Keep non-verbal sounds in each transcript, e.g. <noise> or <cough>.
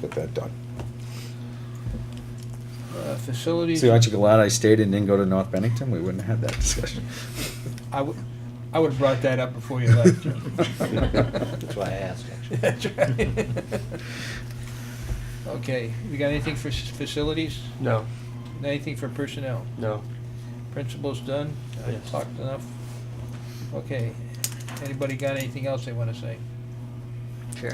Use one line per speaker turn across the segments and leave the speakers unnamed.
get that done.
Uh, Facilities,
See, aren't you glad I stayed and didn't go to North Bennington? We wouldn't have had that discussion.
I would, I would have brought that up before you left.
<laughs> That's why I asked,
<laughs>
actually.
That's right. Okay, we got anything for s- facilities?
No,
Anything for personnel?
no.
Principal's done? I
Yes.
Talked enough? Okay, anybody got anything else they wanna say?
Sure.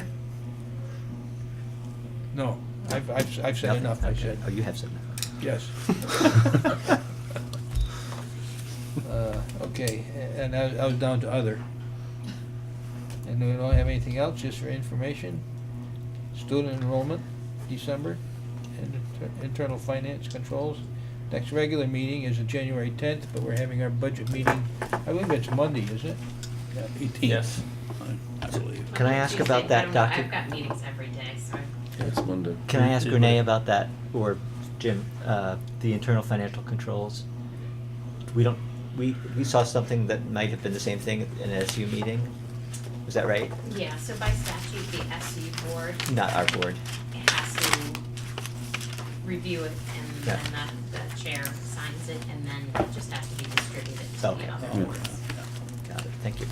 No, I've, I've, I've said enough, I said,
Oh, you have said enough.
yes. Uh, Okay, a- and I, I was down to other. And we don't have anything else, just for information. Student enrollment, December, and inter- internal finance controls. Next regular meeting is January tenth, but we're having our budget meeting, I believe it's Monday, is it? Eighteenth.
Yes, I I believe.
Can I ask about
Tuesday,
that,
I don't know.
Doctor?
I've got meetings every day, so I-
It's Monday.
Can I ask Renee about that, or Jim, uh, the internal financial controls? We don't, we, we saw something that might have been the same thing in an SU meeting, was that right?
yeah, so by statute, the SU board
Not our board,
has to review it and
Yeah.
then the- the chair signs it and then it just has to be distributed to
Okay.
the other
Yeah.
boards.
got it, thank you.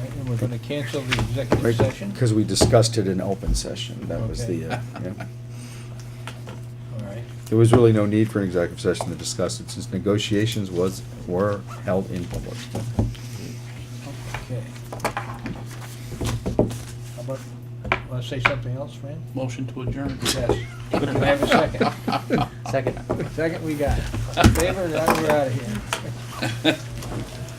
Right, And we're gonna cancel the executive session?
Because we discussed it in open session, that was
Okay.
the, uh, yeah.
All right,
There was really no need for an executive session to discuss it, since negotiations was, were held in public.
okay. How about, wanna say something else, Fran?
Motion to adjourn.
Yes. Can I have a
<laughs>
second?
Second.
Second we got. it. Favor, now we're out of here.